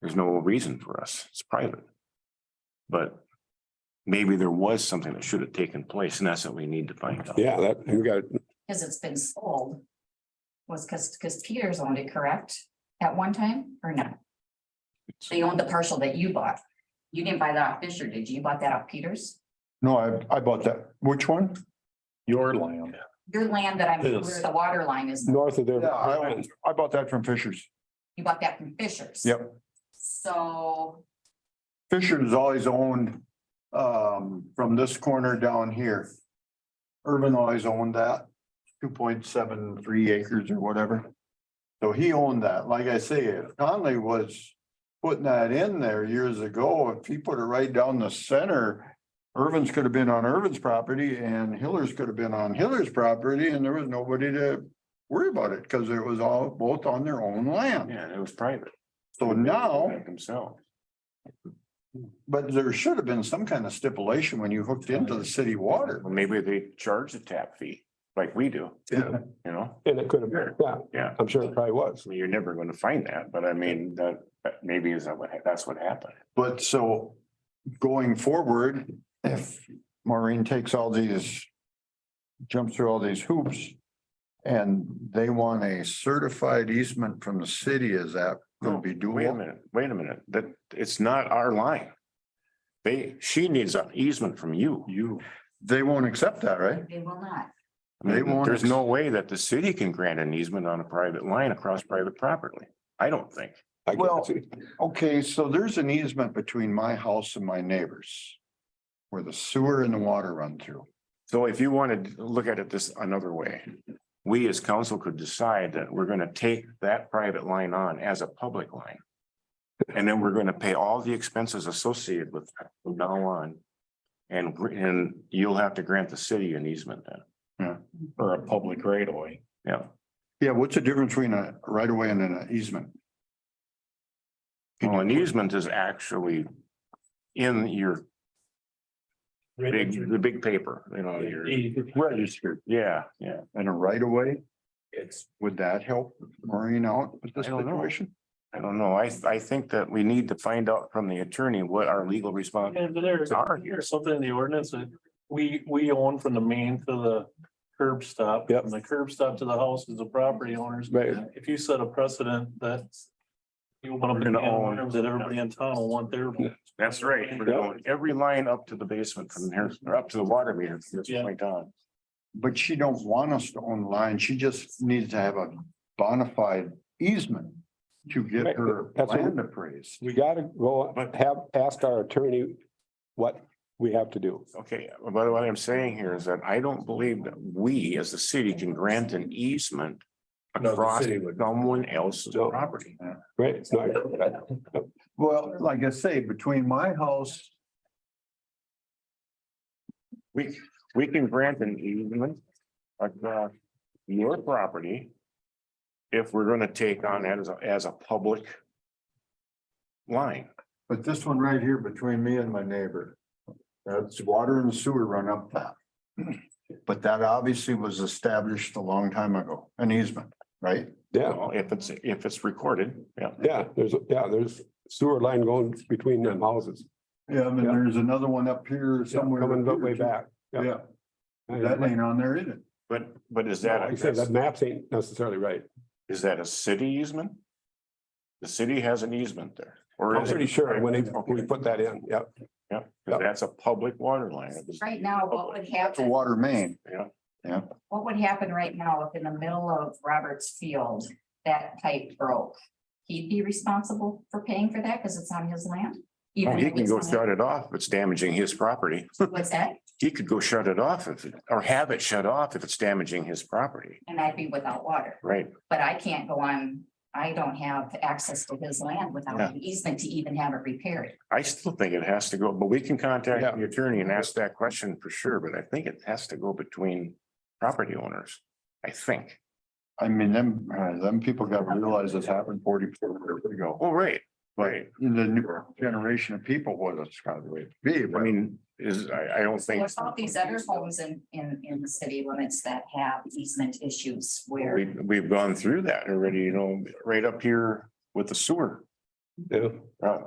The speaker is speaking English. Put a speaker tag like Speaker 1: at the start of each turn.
Speaker 1: There's no reason for us. It's private. But maybe there was something that should have taken place and that's what we need to find out.
Speaker 2: Yeah, that, we got,
Speaker 3: because it's been sold. Was because, because Peters owned it, correct? At one time or no? They owned the parcel that you bought. You didn't buy that off Fisher, did you? You bought that off Peters?
Speaker 4: No, I, I bought that. Which one?
Speaker 5: Your land.
Speaker 3: Your land that I'm, where
Speaker 5: Yes.
Speaker 3: the water line
Speaker 1: Mm.
Speaker 3: is,
Speaker 2: north of there.
Speaker 4: Yeah, I, I bought that from Fisher's.
Speaker 3: you bought that from Fisher's.
Speaker 4: Yep.
Speaker 3: So,
Speaker 4: Fisher's always owned, um, from this corner down here. Urban always owned that, two point seven, three acres or whatever. So he owned that. Like I say, if Conley was putting that in there years ago, if he put it right down the center. Irvin's could have been on Irvin's property and Hiller's could have been on Hiller's property and there was nobody to worry about it because it was all both on their own land.
Speaker 1: Yeah, it was private.
Speaker 4: So now.
Speaker 1: Themselves.
Speaker 4: But there should have been some kind of stipulation when you hooked into the city water.
Speaker 1: Well, Maybe they charge a tap fee like we do,
Speaker 4: Yeah.
Speaker 1: you know?
Speaker 2: And it could have, been. yeah,
Speaker 1: Yeah.
Speaker 2: I'm sure it probably was.
Speaker 1: I mean, You're never going to find that, but I mean, that, that maybe is that what, that's what happened.
Speaker 4: But so going forward, if Maureen takes all these, jumps through all these hoops and they want a certified easement from the city, is that going to be
Speaker 1: Wait a
Speaker 4: doable?
Speaker 1: minute, wait a minute, that, it's not our line. They, she needs an easement from you.
Speaker 4: You, they won't accept that, right?
Speaker 3: they will not.
Speaker 1: I mean,
Speaker 4: They won't
Speaker 1: There's no way that the city can grant an easement on a private line across private property. I don't think.
Speaker 2: I guess.
Speaker 4: Well- Okay, so there's an easement between my house and my neighbors where the sewer and the water run through.
Speaker 1: So if you wanted to look at it this another way, we as council could decide that we're gonna take that private line on as a public line. And then we're gonna pay all the expenses associated with that from now on. And, gr- and you'll have to grant the city an easement then.
Speaker 5: Or a public right of way.
Speaker 1: Yeah,
Speaker 4: Yeah, what's the difference between a right of way and an easement?
Speaker 1: well, an easement Oh, is actually in your big, the big paper, you know, your,
Speaker 4: Registered.
Speaker 1: yeah, yeah.
Speaker 4: And a right of way,
Speaker 5: It's.
Speaker 4: would that help Maureen out with this
Speaker 1: I don't know.
Speaker 4: situation?
Speaker 1: I don't know. I, I think that we need to find out from the attorney what our legal response.
Speaker 5: And there's,
Speaker 1: Sorry.
Speaker 5: there's something in the ordinance that we, we own from the main to the curb stop.
Speaker 2: Yep.
Speaker 5: From the curb stop to the house is the property owners.
Speaker 2: Right.
Speaker 5: If you set a precedent that you want
Speaker 1: We're
Speaker 5: to
Speaker 1: gonna own.
Speaker 5: that everybody in town will want their.
Speaker 1: That's right. We're going every line up to the basement from here, or up to the water meter from this
Speaker 5: Yeah.
Speaker 1: point on.
Speaker 4: But she don't want us to own line. She just needs to have a bona fide easement to get her
Speaker 2: That's what-
Speaker 4: land appraised.
Speaker 2: We gotta go have, ask our attorney what we have to do.
Speaker 1: Okay, but what I'm saying here is that I don't believe that we as the city can grant an easement across someone else's
Speaker 2: No.
Speaker 1: property.
Speaker 2: Right? It's not-
Speaker 4: Well, like I say, between my house,
Speaker 1: We, we can grant an easement across your property if we're gonna take on that as a, as a public line.
Speaker 4: but this one right here between me and my neighbor. That's water and sewer run up that. But that obviously was established a long time ago, an easement, right?
Speaker 2: Yeah,
Speaker 1: Well, If it's, if it's recorded, yeah.
Speaker 2: yeah, there's, yeah, there's sewer line going between them houses.
Speaker 4: Yeah, and
Speaker 2: Yeah.
Speaker 4: there's another one up here
Speaker 2: Yeah,
Speaker 4: somewhere.
Speaker 2: Coming
Speaker 4: up
Speaker 2: that way
Speaker 4: here, too.
Speaker 2: back.
Speaker 4: Yeah, that ain't on there either.
Speaker 1: But, but is
Speaker 2: Like I said, that
Speaker 1: that,
Speaker 2: maps ain't necessarily right.
Speaker 1: is that a city easement? The city has an easement there. or
Speaker 2: I'm
Speaker 1: is it-
Speaker 2: pretty sure when they, when we
Speaker 1: Okay,
Speaker 2: put that in, yep.
Speaker 1: Yeah, 'cause that's a public water line. It was-
Speaker 3: Right now, what would
Speaker 4: It's a
Speaker 3: happen,
Speaker 4: water main.
Speaker 1: Yeah,
Speaker 3: what would happen right now if in the middle of Roberts Field, that pipe broke? He'd be responsible for paying for that because it's on his land?
Speaker 1: Oh,
Speaker 3: Even
Speaker 1: he
Speaker 3: if
Speaker 1: can
Speaker 3: it's
Speaker 1: go
Speaker 3: on-
Speaker 1: shut it off if it's damaging his property.
Speaker 3: What's that?
Speaker 1: He could go shut it off if, it- or have it shut off if it's damaging his property,
Speaker 3: And I'd be without water.
Speaker 1: right?
Speaker 3: But I can't go on, I don't have access to his land without
Speaker 1: Yeah.
Speaker 3: an easement to even have it repaired.
Speaker 1: I still think it has to go, but we can
Speaker 2: Yeah.
Speaker 1: contact the attorney and ask that question for sure, but I think it has to go between property owners, I think.
Speaker 4: I mean, them, uh, them people gotta realize this happened forty, forty years ago.
Speaker 1: Oh, right, right.
Speaker 4: The new generation of people, what it's gotta be,
Speaker 1: I
Speaker 4: but
Speaker 1: mean, is, I, I don't think.
Speaker 3: There's all these other homes in, in, in the city limits that have easement issues where
Speaker 1: We, we've gone through that already, you know, right up here with the sewer.
Speaker 6: Yeah.
Speaker 2: Uh,